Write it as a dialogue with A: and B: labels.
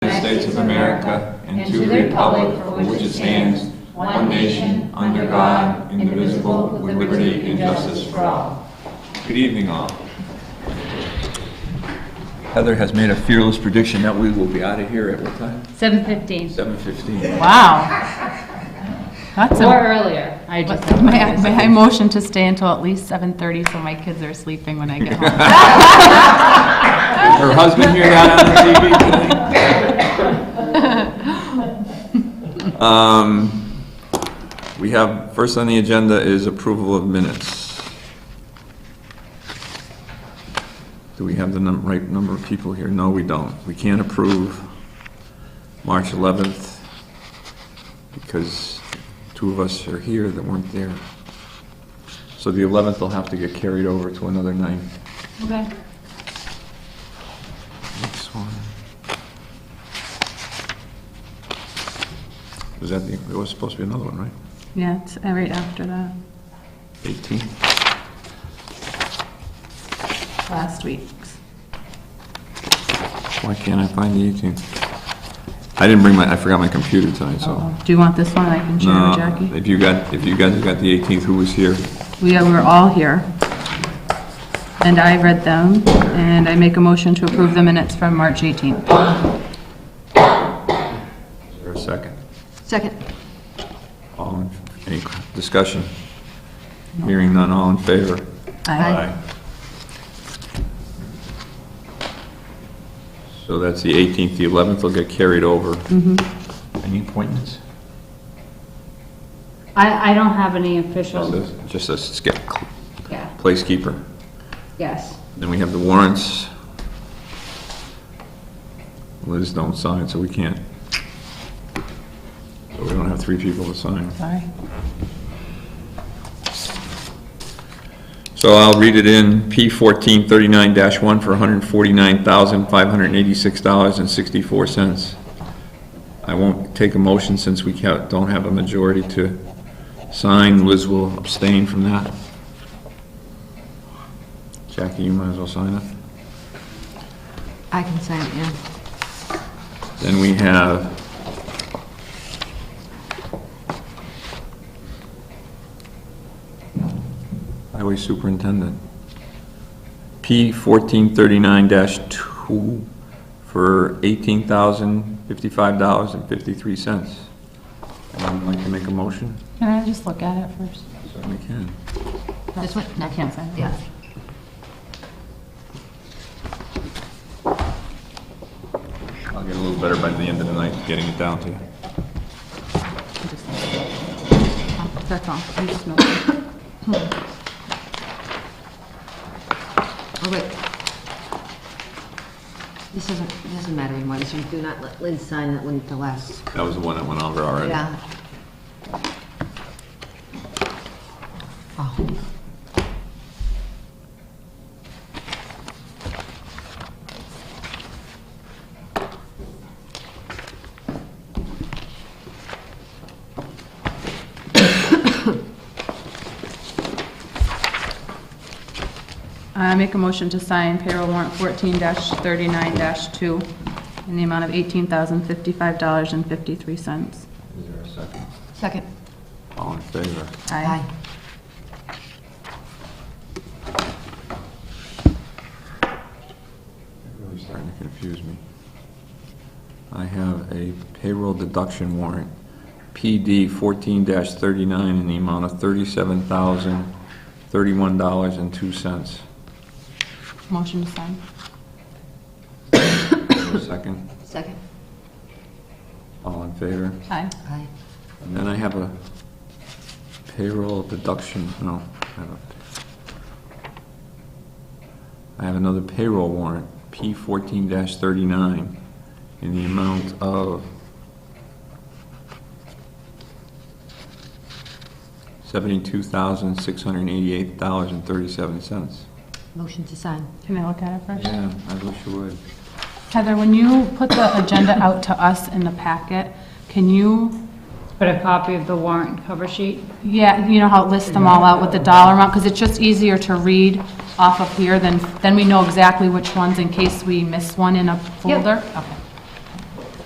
A: States of America and to the republic for which it stands, one nation, under God, indivisible, with liberty and justice for all. Good evening, all. Heather has made a fearless prediction that we will be out of here at what time?
B: 7:15.
A: 7:15.
C: Wow. That's
B: Or
C: a,
B: earlier. I just.
C: may I, may I motion to stay until at least 7:30 so my kids are sleeping when I get home?
A: Is her husband here out on the TV today? Um, We have, first on the agenda is approval of minutes. Do we have the num- right number of people here? No, we don't. We can't approve March 11th because two of us are here that weren't there. So the 11th will have to get carried over to another night.
C: Okay.
A: Next one. Was that, the- there was supposed to be another one, right?
C: Yeah, it's uh, right after that,
A: 18.
C: last week's.
A: Why can't I find the 18? I didn't bring my, I forgot my computer tonight, so.
C: Do you want this one? I can share
A: No,
C: with Oh. Jackie.
A: If you got, if you guys got the 18th, who was here?
C: We are- were all here. And I read them, and I make a motion to approve the minutes from March 18th.
A: Is there a second?
C: Second.
A: All, in- any discussion? Hearing none, all in favor?
C: Aye.
A: So that's the 18th, the 11th will get carried over.
C: Mm-hmm.
A: Any appointments?
B: I, I don't have any official,
A: Just a- Just a skip,
B: yeah,
A: placekeeper.
B: yes.
A: Then we have the warrants. Liz don't sign, so we can't. So we don't have three people to sign.
C: Sorry.
A: So I'll read it in, P fourteen thirty-nine one for hundred and forty-nine thousand, five hundred and eighty-six dollars and sixty-four cents. I won't take a motion since we ca- don't have a majority to sign. Liz will abstain from that. Jackie, you might as well sign it.
D: I can sign it, yeah.
A: Then we have Highway Superintendent. P fourteen thirty-nine two for eighteen thousand fifty-five dollars and fifty-three cents. Anyone like to make a motion?
C: Can I just look at it first?
A: Certainly can.
D: This one?
C: I can't sign it.
D: Yeah.
A: I'll get a little better by the end of the night, getting it down to you.
C: That's all. I'm just noting.
D: Hmm. Oh, wait. This doesn't, it doesn't matter anymore, this one, do not let Lynn sign that one, the last,
A: That was the one that went over already.
D: yeah. Oh,
C: I make a motion to sign payroll warrant fourteen thirty-nine two in the amount of eighteen thousand fifty-five dollars and fifty-three cents.
A: Is there a second?
D: second.
A: All in favor?
D: Aye.
A: Really starting to confuse me. I have a payroll deduction warrant, PD fourteen thirty-nine, in the amount of thirty-seven thousand, thirty-one dollars and two cents.
C: Motion to sign.
A: Second,
D: Second.
A: all in favor?
C: Aye.
D: Aye.
A: And then I have a payroll deduction, no, I have a, I have another payroll warrant, P fourteen thirty-nine, in the amount of seventy-two thousand, six hundred and eighty-eight dollars and thirty-seven cents.
D: Motion to sign.
C: Can I look at it first?
A: Yeah, I wish you would.
C: Heather, when you put the agenda out to us in the packet, can you,
B: Put a copy of the warrant cover sheet?
C: yeah, you know how it lists them all out with the dollar amount? Because it's just easier to read off of here than, then we know exactly which ones in case we miss one in a folder. Okay.